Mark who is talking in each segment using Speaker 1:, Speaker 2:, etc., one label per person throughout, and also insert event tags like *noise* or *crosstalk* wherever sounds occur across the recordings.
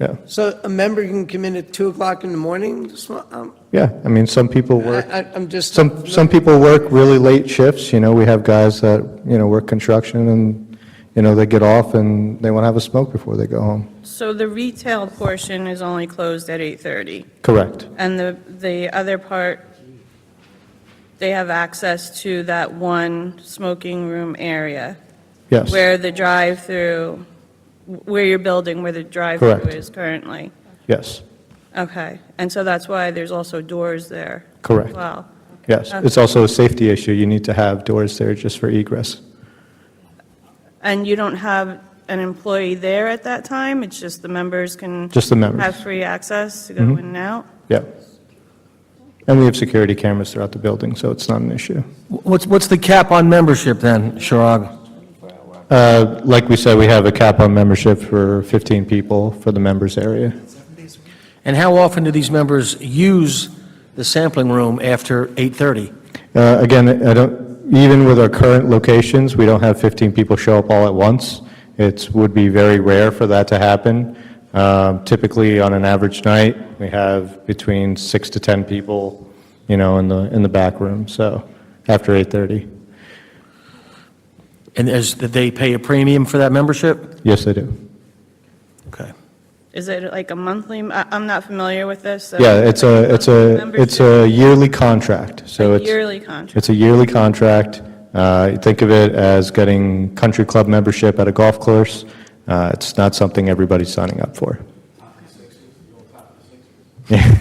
Speaker 1: Yeah,
Speaker 2: So a member can come in at 2 o'clock in the morning? Just wa- um,
Speaker 1: yeah. I mean, some people
Speaker 2: I-
Speaker 1: work,
Speaker 2: I- I'm just.
Speaker 1: some, some people work really late shifts, you know, we have guys that, you know, work construction and, you know, they get off and they want to have a smoke before they go home.
Speaker 3: So the retail portion is only closed at 8:30,
Speaker 1: Correct.
Speaker 3: and the, the other part, they have access to that one smoking room area
Speaker 1: Yes.
Speaker 3: where the drive-through, where you're building, where the drive-through
Speaker 1: Correct.
Speaker 3: is currently.
Speaker 1: Yes.
Speaker 3: Okay, and so that's why there's also doors there.
Speaker 1: Correct.
Speaker 3: Wow.
Speaker 1: Yes. It's also a safety issue. You need to have doors there just for egress.
Speaker 3: And you don't have an employee there at that time? It's just the members can
Speaker 1: Just the members. Mm-hmm.
Speaker 3: have free access to go in and out?
Speaker 1: Yeah. And we have security cameras throughout the building, so it's not an issue.
Speaker 4: What's, what's the cap on membership then, Shirag?
Speaker 1: Uh, Like we said, we have a cap on membership for 15 people for the members area.
Speaker 4: And how often do these members use the sampling room after 8:30?
Speaker 1: Uh, Again, I don't, even with our current locations, we don't have 15 people show up all at once. It would be very rare for that to happen. Um, Typically, on an average night, we have between six to 10 people, you know, in the, in the back room, so, after 8:30.
Speaker 4: And is, did they pay a premium for that membership?
Speaker 1: Yes, they do.
Speaker 4: Okay.
Speaker 3: Is it like a monthly, I- I'm not familiar with this. so-
Speaker 1: Yeah, it's a, it's a,
Speaker 3: Membership,
Speaker 1: it's a yearly contract, so it's.
Speaker 3: Yearly contract.
Speaker 1: It's a yearly contract. Uh, you Think of it as getting country club membership at a golf course. Uh, It's not something everybody's signing up for. *laughs* Yeah.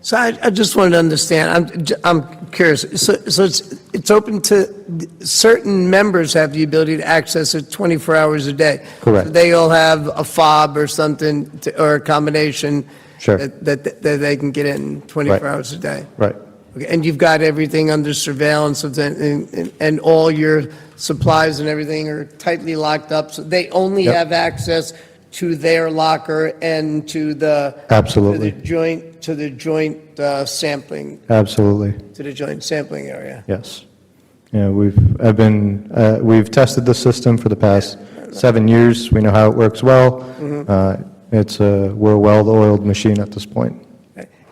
Speaker 2: So I, I just wanted to understand, I'm, j- I'm curious, so, so it's, it's open to, certain members have the ability to access it 24 hours a day?
Speaker 1: Correct.
Speaker 2: So They all have a fob or something, to- or a combination?
Speaker 1: Sure.
Speaker 2: That, that that they can get in 24
Speaker 1: Right.
Speaker 2: hours a day?
Speaker 1: Right.
Speaker 2: Okay, And you've got everything under surveillance, of the- and, and- and all your supplies and everything are tightly locked up, so they only
Speaker 1: Yep.
Speaker 2: have access to their locker and to the...
Speaker 1: Absolutely.
Speaker 2: To the joint, to the joint uh, sampling,
Speaker 1: Absolutely.
Speaker 2: to the joint sampling area.
Speaker 1: Yes. Yeah, we've, I've been, uh, we've tested the system for the past seven years. We know how it works well. Uh, It's a, we're a well-oiled machine at this point.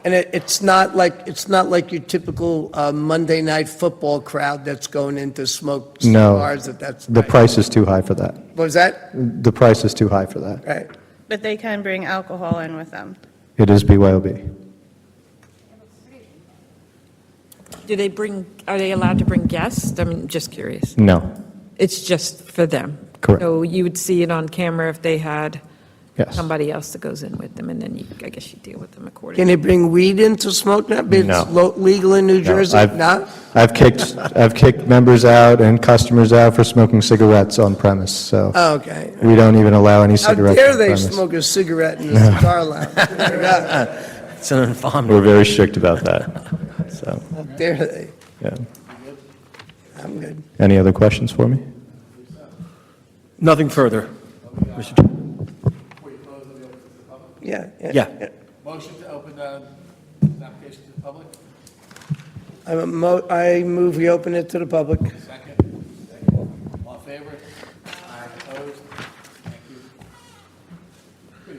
Speaker 2: And it, it's not like, it's not like your typical uh, Monday night football crowd that's going into smoke
Speaker 1: No.
Speaker 2: cigars, if that's...
Speaker 1: The
Speaker 2: right.
Speaker 1: price is too high for that.
Speaker 2: Was that,
Speaker 1: The price is too high for that.
Speaker 2: right?
Speaker 3: But they can bring alcohol in with them.
Speaker 1: It is BYOB.
Speaker 5: Do they bring, are they allowed to bring guests? I'm just curious.
Speaker 1: No.
Speaker 5: It's just for them?
Speaker 1: Correct.
Speaker 5: So you would see it on camera if they had
Speaker 1: Yes.
Speaker 5: somebody else that goes in with them, and then you, I guess you deal with them accordingly.
Speaker 2: Can they bring weed into smoke now?
Speaker 1: No.
Speaker 2: It's lo- legal in New
Speaker 1: No,
Speaker 2: Jersey?
Speaker 1: I've-
Speaker 2: Not?
Speaker 1: I've kicked, I've kicked members out and customers out for smoking cigarettes on premise, so
Speaker 2: Oh, okay.
Speaker 1: we don't even allow any
Speaker 2: How
Speaker 1: cigarettes
Speaker 2: dare
Speaker 1: on
Speaker 2: they
Speaker 1: premise.
Speaker 2: smoke a cigarette in a cigar lounge? How
Speaker 4: It's an
Speaker 1: We're
Speaker 4: infamy.
Speaker 1: very strict about that, so,
Speaker 2: dare they?
Speaker 1: yeah.
Speaker 2: I'm good.
Speaker 1: Any other questions for me?
Speaker 4: Nothing further.
Speaker 2: Yeah.
Speaker 4: Yeah.
Speaker 6: Motion to open the application to the public?
Speaker 2: I'm a mo- I move we open it to the public.
Speaker 6: Second? All in favor? Aye. Opposed? Thank you.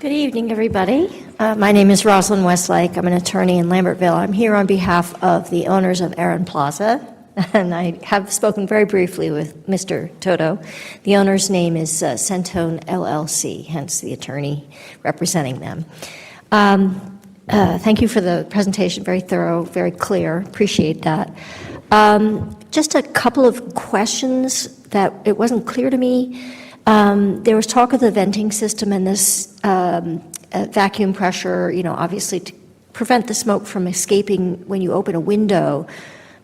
Speaker 7: Good evening, everybody. Uh, My name is Rosalind Westlake. I'm an attorney in Lambertville. I'm here on behalf of the owners of Aaron Plaza, *laughs* and I have spoken very briefly with Mr. Toto. The owner's name is uh, Centone LLC, hence the attorney representing them. Um, uh, Thank you for the presentation, very thorough, very clear, appreciate that. Um, Just a couple of questions that it wasn't clear to me. Um, There was talk of the venting system and this um, uh, vacuum pressure, you know, obviously to prevent the smoke from escaping when you open a window,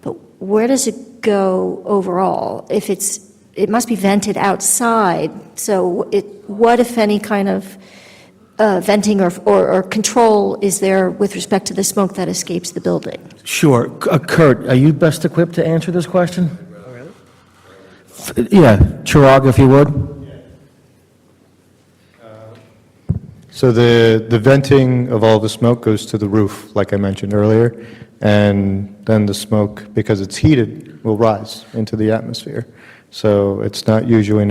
Speaker 7: but where does it go overall? If it's, it must be vented outside, so it, what if any kind of uh, venting or, or or control is there with respect to the smoke that escapes the building?
Speaker 4: Sure. C- uh, Kurt, are you best equipped to answer this question? F- Yeah, Shirag, if you would.
Speaker 1: So the, the venting of all the smoke goes to the roof, like I mentioned earlier, and then the smoke, because it's heated, will rise into the atmosphere. So it's not usually an